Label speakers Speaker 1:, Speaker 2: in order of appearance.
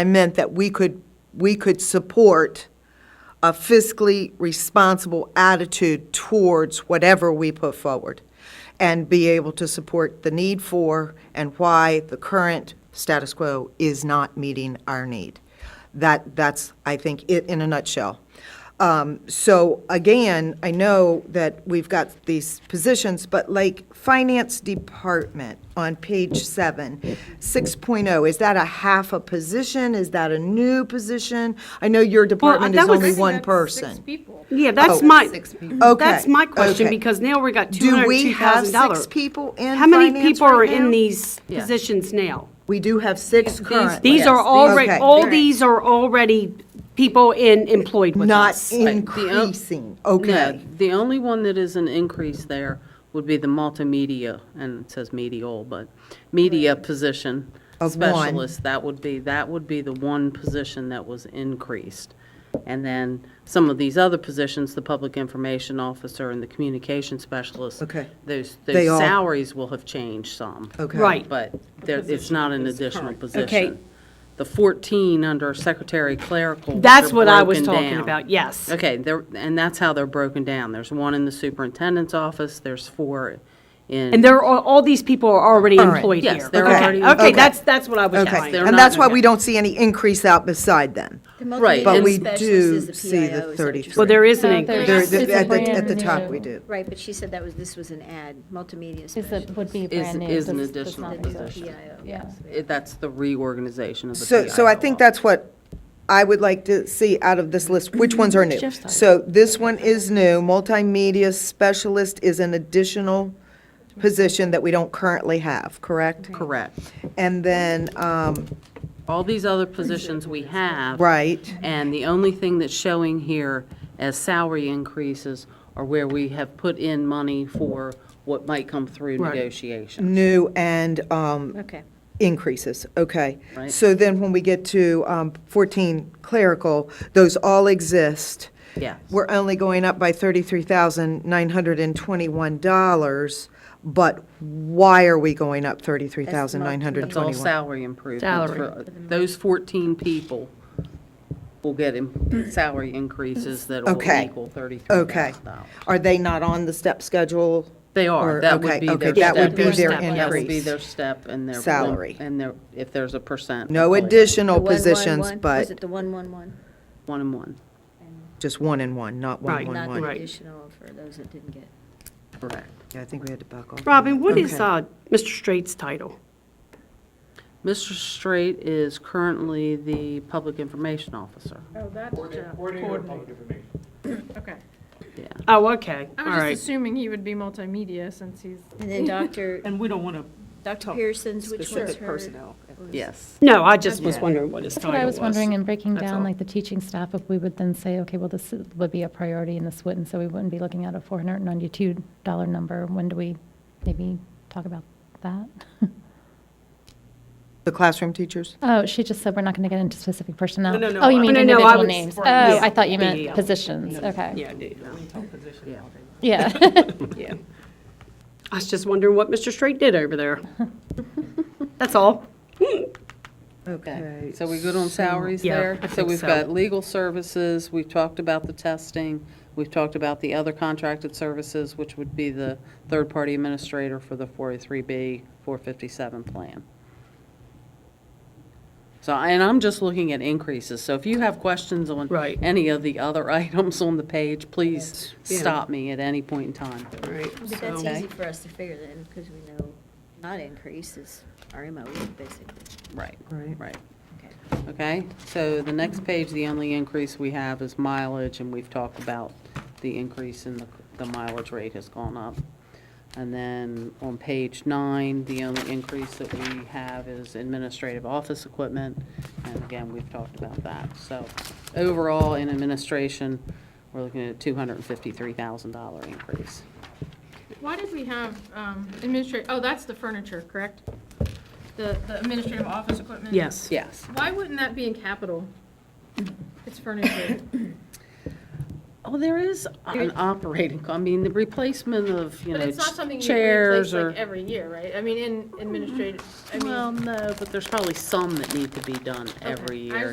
Speaker 1: I meant that we could, we could support a fiscally responsible attitude towards whatever we put forward and be able to support the need for and why the current status quo is not meeting our need. That, that's, I think, it in a nutshell. Um, So again, I know that we've got these positions, but like Finance Department on page seven, 6.0, is that a half a position? Is that a new position? I know your department
Speaker 2: uh,
Speaker 1: is
Speaker 2: that was-
Speaker 1: only
Speaker 2: I think
Speaker 1: one
Speaker 3: that's
Speaker 1: person.
Speaker 3: Six people.
Speaker 2: Yeah, that's my,
Speaker 1: Oh, Okay,
Speaker 2: that's my question,
Speaker 1: okay.
Speaker 2: because now we got
Speaker 1: Do we have
Speaker 2: $202,000.
Speaker 1: six people in
Speaker 2: How many
Speaker 1: finance
Speaker 2: people are
Speaker 1: right now?
Speaker 2: in these
Speaker 4: Yeah.
Speaker 2: positions now?
Speaker 1: We do have six currently.
Speaker 2: These are
Speaker 4: Yes, these-
Speaker 2: already,
Speaker 1: Okay.
Speaker 2: all
Speaker 4: Right.
Speaker 2: these are already people in, employed with
Speaker 1: Not
Speaker 2: us. um,
Speaker 1: increasing,
Speaker 4: No,
Speaker 1: okay.
Speaker 4: the only one that is an increase there would be the multimedia, and it says medial, but media position
Speaker 1: Of one.
Speaker 4: specialist. That would be, that would be the one position that was increased. And then some of these other positions, the public information officer and the communication specialist.
Speaker 1: Okay.
Speaker 4: Those,
Speaker 1: They
Speaker 4: those
Speaker 1: all-
Speaker 4: salaries will have changed some.
Speaker 1: Okay.
Speaker 2: Right.
Speaker 4: But there, it's not an additional position.
Speaker 2: Okay.
Speaker 4: The 14 under secretary clerical. which
Speaker 2: That's
Speaker 4: are
Speaker 2: what I was
Speaker 4: broken
Speaker 2: talking
Speaker 4: down.
Speaker 2: about, yes.
Speaker 4: Okay, there, and that's how they're broken down. There's one in the superintendent's office, there's four in.
Speaker 2: And there are, all these people are already
Speaker 1: All right.
Speaker 2: employed here.
Speaker 4: Yes, they're
Speaker 2: Okay.
Speaker 4: already-
Speaker 2: Okay,
Speaker 1: Okay.
Speaker 2: that's, that's what I was
Speaker 1: Okay,
Speaker 2: asking.
Speaker 4: they're
Speaker 1: and
Speaker 4: not-
Speaker 1: that's why we don't see any increase out beside them.
Speaker 4: Right,
Speaker 1: But
Speaker 4: And
Speaker 1: we do see the 33.
Speaker 2: Well, there is an
Speaker 5: No,
Speaker 2: increase.
Speaker 1: There-
Speaker 5: It's a
Speaker 1: At the,
Speaker 5: brand
Speaker 1: at the top,
Speaker 5: new.
Speaker 1: we do.
Speaker 6: Right, but she said that was, this was an ad, multimedia
Speaker 5: Is
Speaker 6: specialist.
Speaker 5: it, would be
Speaker 4: Is,
Speaker 5: brand new.
Speaker 4: is an
Speaker 5: does- does
Speaker 4: additional
Speaker 5: not exist.
Speaker 4: position.
Speaker 6: PIO,
Speaker 5: Yeah.
Speaker 4: It- That's the reorganization of the
Speaker 1: So, so I think
Speaker 4: PIO.
Speaker 1: that's what I would like to see out of this list, which ones are new? So this one is new, multimedia specialist is an additional position that we don't currently have, correct?
Speaker 4: Correct.
Speaker 1: And then, um,
Speaker 4: All these other positions we have.
Speaker 1: right,
Speaker 4: And the only thing that's showing here as salary increases are where we have put in money for what might come through negotiation.
Speaker 1: new and, um,
Speaker 6: Okay.
Speaker 1: increases, okay.
Speaker 4: Right.
Speaker 1: So then when we get to um, 14 clerical, those all exist.
Speaker 4: Yes.
Speaker 1: We're only going up by $33,921, but why are we going up
Speaker 4: It's all
Speaker 1: $33,921?
Speaker 4: salary improvements. for- uh, Those 14 people will get im- salary increases that will
Speaker 1: Okay.
Speaker 4: equal
Speaker 1: Okay.
Speaker 4: $33,000.
Speaker 1: Are they not on the step schedule?
Speaker 4: They
Speaker 1: Or-
Speaker 4: are, that
Speaker 1: okay,
Speaker 4: would be their
Speaker 1: okay,
Speaker 4: step.
Speaker 1: that would
Speaker 2: be their
Speaker 4: That would be
Speaker 1: increase.
Speaker 4: their step and their. one-
Speaker 1: Salary.
Speaker 4: And their, if there's a percent.
Speaker 1: No
Speaker 4: withholding.
Speaker 1: additional
Speaker 6: The 111?
Speaker 1: positions,
Speaker 6: Was
Speaker 1: but
Speaker 6: it the 111?
Speaker 4: One and one,
Speaker 1: just one and one, not one,
Speaker 2: Right,
Speaker 1: one,
Speaker 6: Not the
Speaker 1: one.
Speaker 2: Right.
Speaker 6: additional for those that didn't get.
Speaker 4: correct.
Speaker 1: Yeah, I think we had to back off.
Speaker 2: Robin, what is
Speaker 1: Okay.
Speaker 2: uh, Mr. Straight's title?
Speaker 4: Mr. Straight is currently the public information officer,
Speaker 3: Oh, that's Jeff. Coordinator. Okay.
Speaker 4: yeah.
Speaker 2: Oh, okay, all
Speaker 3: I was
Speaker 2: right.
Speaker 3: just assuming he would be multimedia since he's.
Speaker 6: And then Dr.
Speaker 2: And we don't want to,
Speaker 6: Dr. Pearson's, which was her.
Speaker 4: Yes.
Speaker 2: no, I just was wondering what his
Speaker 5: That's
Speaker 2: title
Speaker 5: what I was wondering in breaking
Speaker 2: That's
Speaker 5: down,
Speaker 2: all.
Speaker 5: like the teaching staff, if we would then say, okay, well, this is- would be a priority and this wouldn't, so we wouldn't be looking at a $492 number. When do we maybe talk about that?
Speaker 1: The classroom teachers?
Speaker 5: Oh, she just said we're not going to get into specific personnel.
Speaker 2: No, no,
Speaker 5: Oh, you
Speaker 2: I-
Speaker 5: mean
Speaker 2: No, no, I
Speaker 5: individual
Speaker 2: was-
Speaker 5: names. Oh,
Speaker 2: Yeah.
Speaker 5: I thought you
Speaker 2: Yeah.
Speaker 5: meant positions, okay.
Speaker 2: um, Yeah, dude, no.
Speaker 5: Yeah.
Speaker 2: Yeah. I was just wondering what Mr. Straight did over there. That's all.
Speaker 4: Okay, so we good on salaries
Speaker 2: Yeah,
Speaker 4: there?
Speaker 2: I
Speaker 4: So
Speaker 2: think
Speaker 4: we've
Speaker 2: so.
Speaker 4: got legal services, we've talked about the testing, we've talked about the other contracted services, which would be the third-party administrator for the 403B, 457 plan. So, and I'm just looking at increases, so if you have questions on
Speaker 2: Right.
Speaker 4: any of the other items on the page, please
Speaker 2: Yeah.
Speaker 4: stop me at any point in time.
Speaker 2: All right,
Speaker 6: But that's easy for us to figure then, because we know not increase is RMO, basically.
Speaker 4: Right,
Speaker 1: Right.
Speaker 4: right. Okay, so the next page, the only increase we have is mileage, and we've talked about the increase in the, the mileage rate has gone up. And then on page nine, the only increase that we have is administrative office equipment, and again, we've talked about that. So overall, in administration, we're looking at a two hundred and fifty-three thousand dollar increase.
Speaker 3: Why did we have administrative, oh, that's the furniture, correct? The the administrative office equipment?
Speaker 2: yes.
Speaker 4: Yes.
Speaker 3: Why wouldn't that be in capital? It's furniture.
Speaker 4: Oh, there is an operating, co- I mean, the replacement of, you
Speaker 3: But
Speaker 4: know,
Speaker 3: it's not something
Speaker 4: ch-
Speaker 3: you replace
Speaker 4: chairs
Speaker 3: like
Speaker 4: or.
Speaker 3: every year, right? I mean, in administrative, I mean.
Speaker 4: Well, no, but there's probably some that need to be done
Speaker 3: Okay.
Speaker 4: every
Speaker 3: I
Speaker 4: year.